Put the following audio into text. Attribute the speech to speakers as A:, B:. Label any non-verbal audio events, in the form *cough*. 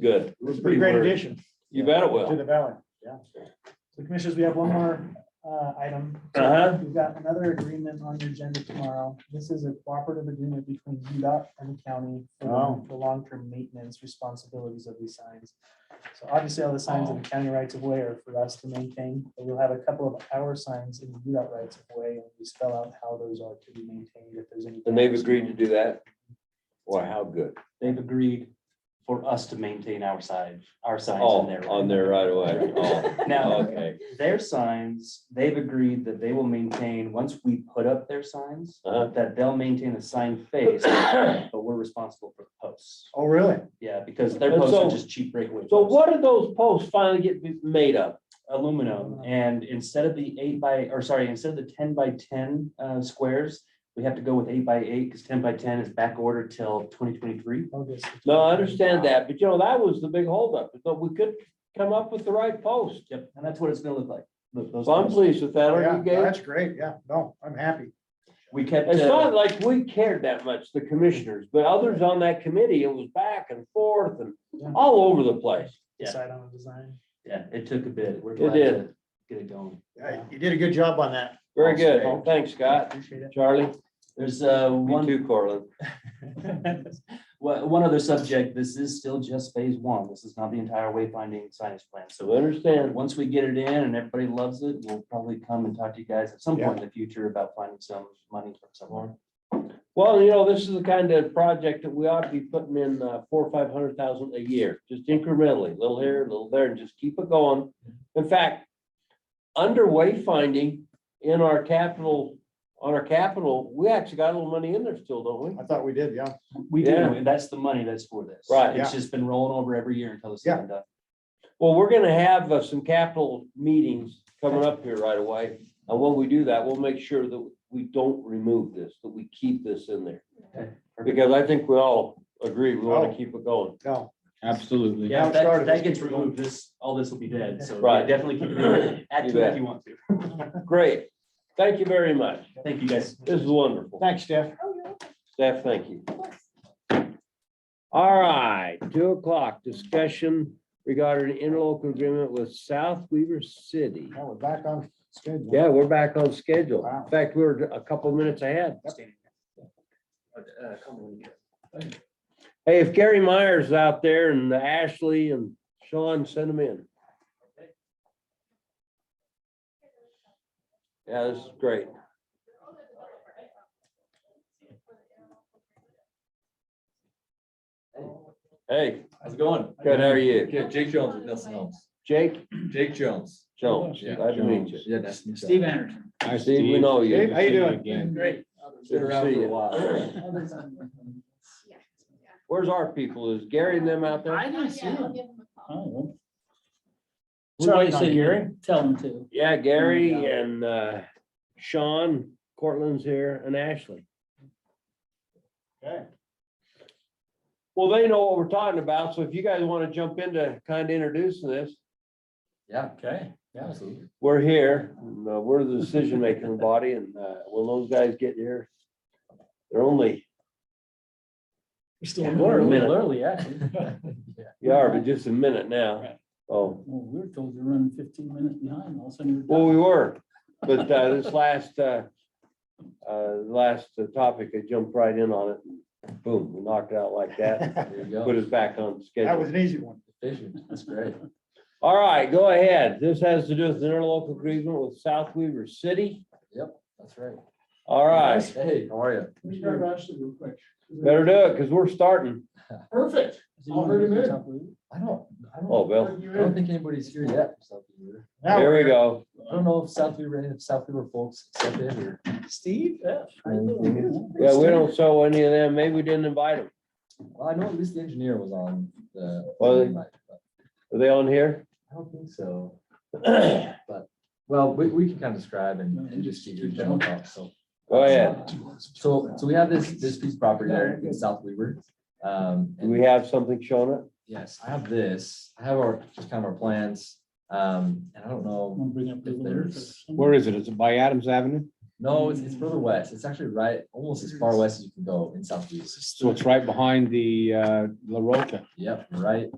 A: Good.
B: It was a pretty great addition
A: You bet it
B: to
A: will.
B: the valley, yeah. So commissioners, we have one more uh, item.
A: Uh-huh.
B: We've got another agreement on your agenda tomorrow. This is a cooperative agreement between UDOT and the county for
C: Oh.
B: the- the long-term maintenance responsibilities of these signs. So obviously, all the signs in the county rights of way are for us to maintain, but we'll have a couple of our signs in the UDOT rights of way, and we spell out how those are to be maintained if there's any.
A: And they've agreed to do that. Wow, how good.
D: They've agreed for us to maintain our side, our signs
A: Oh,
D: on their.
A: on there right
B: *laughs*
A: away. Oh,
D: Now,
A: okay.
D: their signs, they've agreed that they will maintain, once we put up their signs,
A: Uh-huh.
D: that they'll maintain a sign
A: *coughs*
D: face, but we're responsible for the posts.
B: Oh, really?
D: Yeah, because their
A: And
D: posts are
A: so-
D: just cheap breakaway.
A: So
D: posts.
A: what are those posts finally get made of? Uh.
D: Aluminum, and instead of the eight by, or sorry, instead of the ten by ten uh squares, we have to go with eight by eight, because ten by ten is back ordered till twenty twenty-three.
B: August.
A: No, I understand that, but you know, that was the big holdup. So we could come up with the right post.
D: Yep. And that's what it's gonna look like. th- those
A: So I'm
D: posts.
A: pleased with that,
C: Yeah,
A: aren't you, Gabe?
C: that's great. Yeah, no, I'm happy.
D: We kept.
A: It's
D: uh,
A: not like we cared that much, the commissioners, but others on that committee, it was back and forth and all over the place.
D: Yeah.
B: Decide on a design.
D: Yeah, it took a bit. We're
A: It
D: glad
A: did.
D: to get it going.
C: Yeah, You did a good job on that.
A: Very good.
C: Okay.
A: Thanks, Scott.
B: Appreciate it.
A: Charlie,
D: There's uh
A: you
D: one,
A: too, Corlin.
D: *laughs* one one other subject. This is still just phase one. This is not the entire wayfinding science plan.
A: So
D: So
A: understand.
D: once we get it in and everybody loves it, we'll probably come and talk to you guys at some point in the future about finding some money from somewhere.
A: Well, you know, this is the kind of project that we ought to be putting in uh, four, or five hundred thousand a year, just incrementally, little here, little there, and just keep it going. In fact, underway finding in our capital, on our capital, we actually got a little money in there still, don't we?
C: I thought we did, yeah.
D: We do,
A: Yeah.
D: and that's the money that's for this.
A: Right.
D: It's just been rolling over every year until it's done. done.
A: Well, we're gonna have uh, some capital meetings coming up here right away. And when we do that, we'll make sure that we don't remove this, that we keep this in there. Because I think we all agree, we want to keep it going.
C: No,
E: Absolutely.
D: Yeah, if
C: Now
D: that,
C: started,
D: that
C: let's
D: gets
C: keep going.
D: removed, this, all this will be dead. So yeah,
A: Right.
D: definitely
A: *clears throat*
D: keep it going. Add
A: You
D: to it
A: bet.
D: if you want to.
A: Great. Thank you very much.
D: Thank you, guys.
A: This is wonderful.
C: thanks, Steph.
A: Steph, thank you. All right, two o'clock discussion regarding interlocal agreement with South Weaver City.
C: Now we're back on schedule.
A: Yeah, we're back on schedule.
C: Wow.
A: In fact, we we're a couple minutes ahead.
D: Uh, come on.
A: Hey, if Gary Myers is out there and Ashley and Sean, send them in. Yeah, this is great. Hey,
F: How's it going?
A: good, how are you?
F: Good, Jake Jones with Nelson Helms.
A: Jake
F: Jake Jones.
A: Jones,
E: Yeah,
A: glad to meet you.
F: Yeah, nice to meet you.
G: Steve Anderson.
E: Hi,
A: Steve, we know you.
E: Steve, How you
C: Good to see you
E: doing? Again.
G: Great.
A: Good
F: Been
A: to
F: around
A: see
F: for a
A: you.
F: while.
A: Where's our people? Is Gary and them out there?
G: I didn't see him. Oh,
E: We might
G: Charlie's
E: say
G: on
E: Gary.
G: here. Tell him to.
A: Yeah, Gary
G: Yeah.
A: and uh, Sean, Cortland's here, and Ashley.
C: Okay.
A: Well, they know what we're talking about, so if you guys want to jump into kind of introducing this,
F: Yeah, okay, yeah, absolutely.
A: we're here. and, uh, We're the decision-making body, and uh, when those guys get here, they're only,
G: We're still
A: in order.
C: *laughs*
G: early, actually.
A: you are, but just a minute now.
G: Right.
A: Oh,
G: Well, we were told to run fifteen minutes behind, all of a sudden.
A: well,
G: we're
A: we
G: done.
A: were, but
G: *laughs*
A: uh, this last, uh, uh, last topic, I jumped right in on it. and Boom, we knocked it out like that,
C: *laughs*
F: There you go.
A: put us back on
C: That
A: schedule.
C: was an easy one.
F: Efficient, That's great.
A: All right, go ahead. This has to do with an interlocal agreement with South Weaver City.
F: That's right.
A: All right,
F: Hey, how are you?
H: We start Ashley real quick.
A: better do it, because we're starting.
H: Perfect.
G: Is he
H: I'll hurt him in.
G: top of it?
F: I don't, I
A: Oh,
F: don't,
A: Bill,
F: I don't think anybody's here yet. for South Beaver.
C: Now
A: here we go.
F: I don't know if South Beaver, any of South Beaver folks step in or.
G: Steve? Yeah.
A: Yeah, we don't show any of them. Maybe we didn't invite them.
F: Well, I know at least the engineer was on the.
A: Well,
F: I
A: Are they on here?
F: don't think so. *clears throat* But, well, we, we can kind of describe and, and just give you a general thought, so.
A: Go ahead.
F: So, so we have this, this piece of property there in South Weaver. Um,
A: Do
F: and
A: we have something showing it?
F: yes, I have this, I have our, just kind of our plans. Um, and I don't know,
G: Wanna bring up the
F: If
G: letter
F: there's-
G: for-
E: Where is it? Is it by Adams Avenue?
F: no, it's, it's further west. It's actually right, almost as far west as you can go in South Weaver.
E: So it's right behind the uh, La Roca.
F: Yep, right